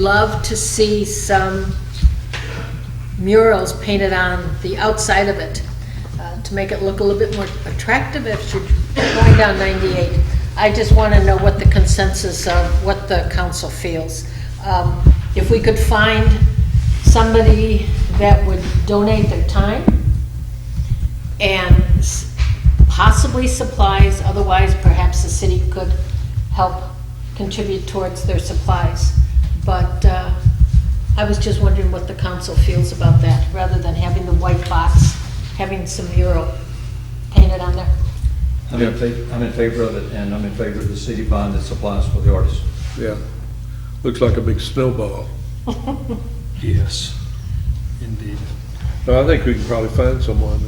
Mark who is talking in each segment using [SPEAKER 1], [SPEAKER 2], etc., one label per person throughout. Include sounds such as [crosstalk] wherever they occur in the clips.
[SPEAKER 1] Love to see some murals painted on the outside of it uh, to make it look a little bit more attractive if you're going down 98. I just want to know what the consensus of, what the council feels. Um, If we could find somebody that would donate their time, and s- possibly supplies, otherwise perhaps the city could help contribute towards their supplies. But uh, I was just wondering what the council feels about that, rather than having the white box, having some mural painted on there.
[SPEAKER 2] I'm in fa- I'm in favor of it, and I'm in favor of the city bond that supplies for the artists.
[SPEAKER 3] Yeah, looks like a big snowball.
[SPEAKER 4] Yes, indeed.
[SPEAKER 3] But I think we can probably find someone.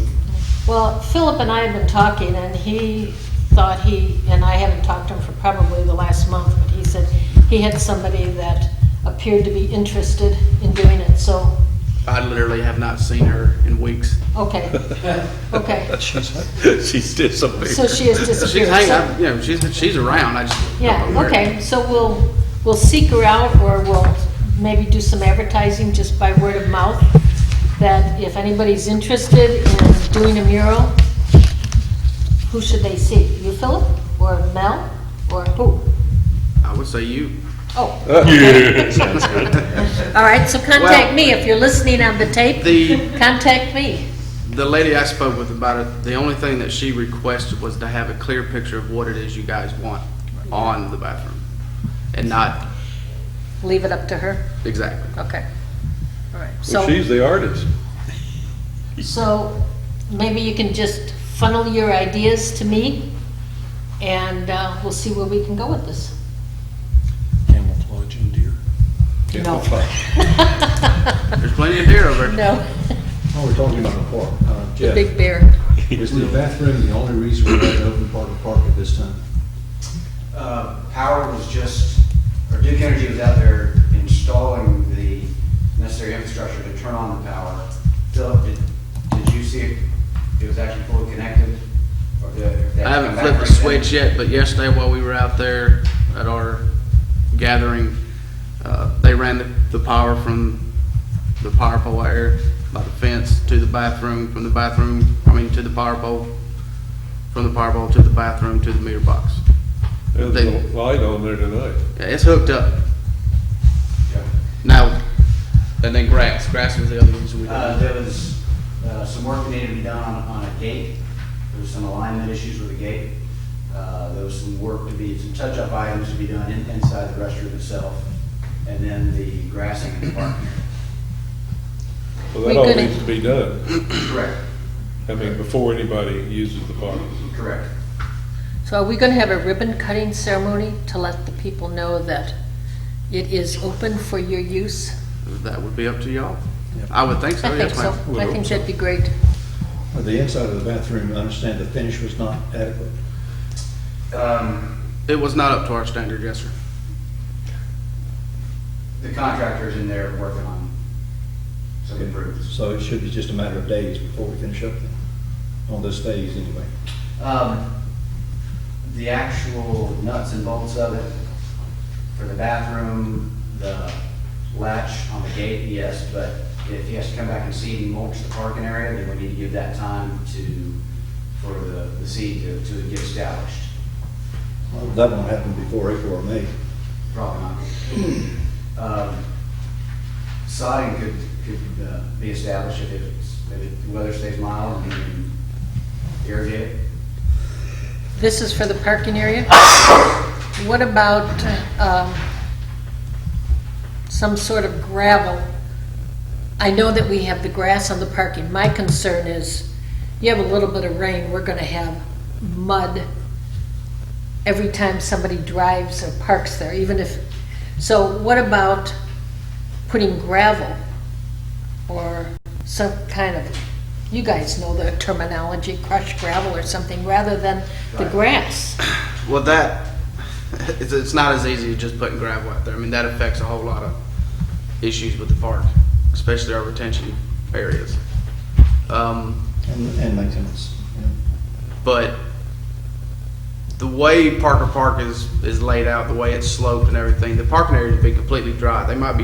[SPEAKER 1] Well, Philip and I have been talking, and he thought he, and I haven't talked to him for probably the last month, but he said he had somebody that appeared to be interested in doing it, so
[SPEAKER 5] I literally have not seen her in weeks. [laughs]
[SPEAKER 1] Okay, okay.
[SPEAKER 3] She's disappeared.
[SPEAKER 1] So she has
[SPEAKER 5] She's
[SPEAKER 1] disappeared.
[SPEAKER 5] hanging,
[SPEAKER 1] So-
[SPEAKER 5] out, you know, she's, she's around, I just. don't know
[SPEAKER 1] Yeah,
[SPEAKER 5] where.
[SPEAKER 1] okay, so we'll, we'll seek her out, or we'll maybe do some advertising just by word of mouth, that if anybody's interested in doing a mural, who should they see? You, Philip, or Mel, or who?
[SPEAKER 5] I would say you.
[SPEAKER 1] Oh. [laughs] All right, so contact
[SPEAKER 5] Well-
[SPEAKER 1] me, if you're listening on the tape,
[SPEAKER 5] The-
[SPEAKER 1] contact me.
[SPEAKER 5] The lady I spoke with about it, the only thing that she requested was to have a clear picture of what it is you guys want on the bathroom. And not,
[SPEAKER 1] Leave it up to her,
[SPEAKER 5] exactly.
[SPEAKER 1] okay. All right, so.
[SPEAKER 3] Well, she's the artist.
[SPEAKER 1] So maybe you can just funnel your ideas to me, and uh, we'll see where we can go with this.
[SPEAKER 4] Camouflage and deer.
[SPEAKER 1] No.
[SPEAKER 5] There's plenty of deer over there.
[SPEAKER 1] [laughs] No,
[SPEAKER 2] Oh, we're talking about the park. Uh,
[SPEAKER 1] the
[SPEAKER 2] Jeff,
[SPEAKER 1] big bear.
[SPEAKER 2] is the bathroom the only reason we have an open part of the park at this time?
[SPEAKER 6] Uh, Power was just, or Duke Energy was out there installing the necessary infrastructure to turn on the power. Philip, did, did you see it? It was actually fully connected? Or did- or did that
[SPEAKER 5] I haven't
[SPEAKER 6] come back
[SPEAKER 5] flipped the
[SPEAKER 6] right then?
[SPEAKER 5] switch yet, but yesterday while we were out there at our gathering, uh, they ran the, the power from the power pole out here by the fence to the bathroom, from the bathroom, I mean, to the power pole, from the power pole to the bathroom, to the meter box.
[SPEAKER 3] There's
[SPEAKER 5] They-
[SPEAKER 3] a light on there tonight.
[SPEAKER 5] Yeah, it's hooked up.
[SPEAKER 6] Yeah.
[SPEAKER 5] Now, and then grass, grass was the other reason we
[SPEAKER 6] Uh,
[SPEAKER 5] did.
[SPEAKER 6] there was, uh, some work that needed to be done on, on a gate. There was some alignment issues with the gate. Uh, there was some work to be, some touch-up items to be done in- inside the restroom itself. And then the grassing in the park.
[SPEAKER 3] Well,
[SPEAKER 1] We
[SPEAKER 3] that all
[SPEAKER 1] could-
[SPEAKER 3] needs to be done.
[SPEAKER 6] Correct,
[SPEAKER 3] I mean, before anybody uses the park.
[SPEAKER 6] correct.
[SPEAKER 1] So are we going to have a ribbon cutting ceremony to let the people know that it is open for your use?
[SPEAKER 5] That would be up to y'all. I would think so,
[SPEAKER 1] I think
[SPEAKER 5] Oh, yes,
[SPEAKER 1] so.
[SPEAKER 5] ma'am.
[SPEAKER 1] I think that'd be great.
[SPEAKER 2] Uh, The inside of the bathroom, I understand the finish was not adequate.
[SPEAKER 6] Um,
[SPEAKER 5] It was not up to our standard, yes, sir.
[SPEAKER 6] The contractor's in there working on some improvements.
[SPEAKER 2] So it should be just a matter of days before we finish up then, on this phase anyway.
[SPEAKER 6] Um, The actual nuts and bolts of it, for the bathroom, the latch on the gate, yes, but if he has to come back and seed and mulch the parking area, then we need to give that time to, for the the seed to, to get established.
[SPEAKER 2] Well, That won't happen before April or May.
[SPEAKER 6] Probably not. Um, Sodding could, could uh, be established if it's, if it- the weather stays mild and you can irrigate it.
[SPEAKER 1] This is for the parking area? What about um, some sort of gravel? I know that we have the grass on the parking. My concern is, you have a little bit of rain, we're going to have mud every time somebody drives or parks there, even if, so what about putting gravel or some kind of, you guys know the terminology, crushed gravel or something, rather than the
[SPEAKER 6] Right.
[SPEAKER 1] grass?
[SPEAKER 5] Well, that, it's, it's not as easy as just putting gravel out there. I mean, that affects a whole lot of issues with the park, especially our retention areas. Um,
[SPEAKER 2] And, and maintenance, you know.
[SPEAKER 5] but the way Parker Park is, is laid out, the way it's sloped and everything, the parking area would be completely dry. They might be